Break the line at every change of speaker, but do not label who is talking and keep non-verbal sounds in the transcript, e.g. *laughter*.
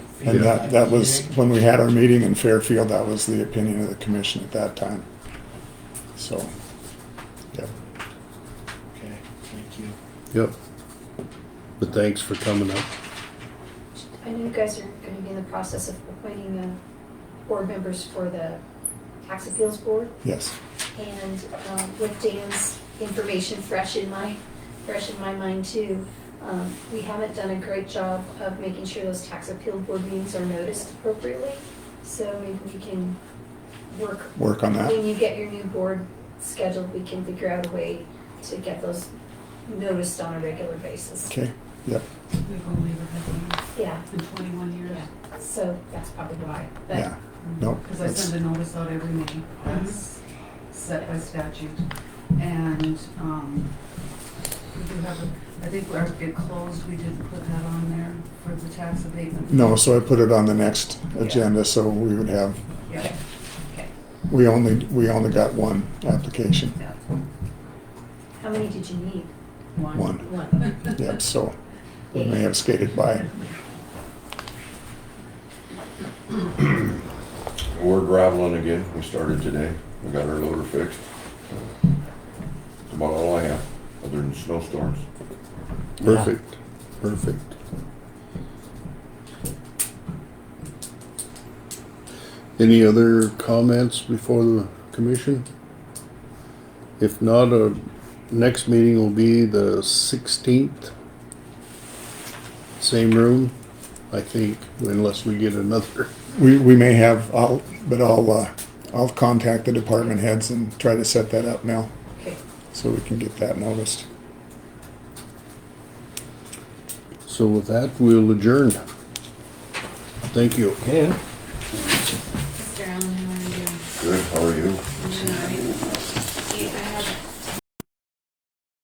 And that, that was, when we had our meeting in Fairfield, that was the opinion of the commission at that time. So, yeah.
Okay, thank you.
Yep. But thanks for coming up.
I know you guys are gonna be in the process of appointing, uh, board members for the tax appeals board.
yes,
And, um, with Dan's information fresh in my, fresh in my mind too, um, we haven't done a great job of making sure those tax appeal board meetings are noticed appropriately. So maybe we can work,
work on that.
when you get your new board scheduled, we can figure out a way to get those noticed on a regular basis.
Okay, yep,
We've only ever had one
Yeah,
in twenty-one years.
yeah, so that's probably why, but
yeah, no.
Because I
that's-
send a notice out every meeting, that's set by statute. And, um, we do have, a- I think our get closed, we didn't put that on there for the tax abatement.
No, so I put it on the next agenda, so we would have,
Yeah, okay,
we only, we only got one application,
yeah.
how many did you need?
one.
One.
*laughs* Yep, so we may have skated by.
We're graveling again. We started today. We got our loader fixed. That's about all I have, other than snowstorms.
Perfect, perfect. Any other comments before the commission? If not, our next meeting will be the sixteenth. Same room, I think, unless we get another. *laughs*
We, we may have, I'll, but I'll, uh, I'll contact the department heads and try to set that up now,
Okay,
so we can get that noticed.
So with that, we'll adjourn. Thank you.
Mr. Allen, how are you?
Good, how are you?
Motion made.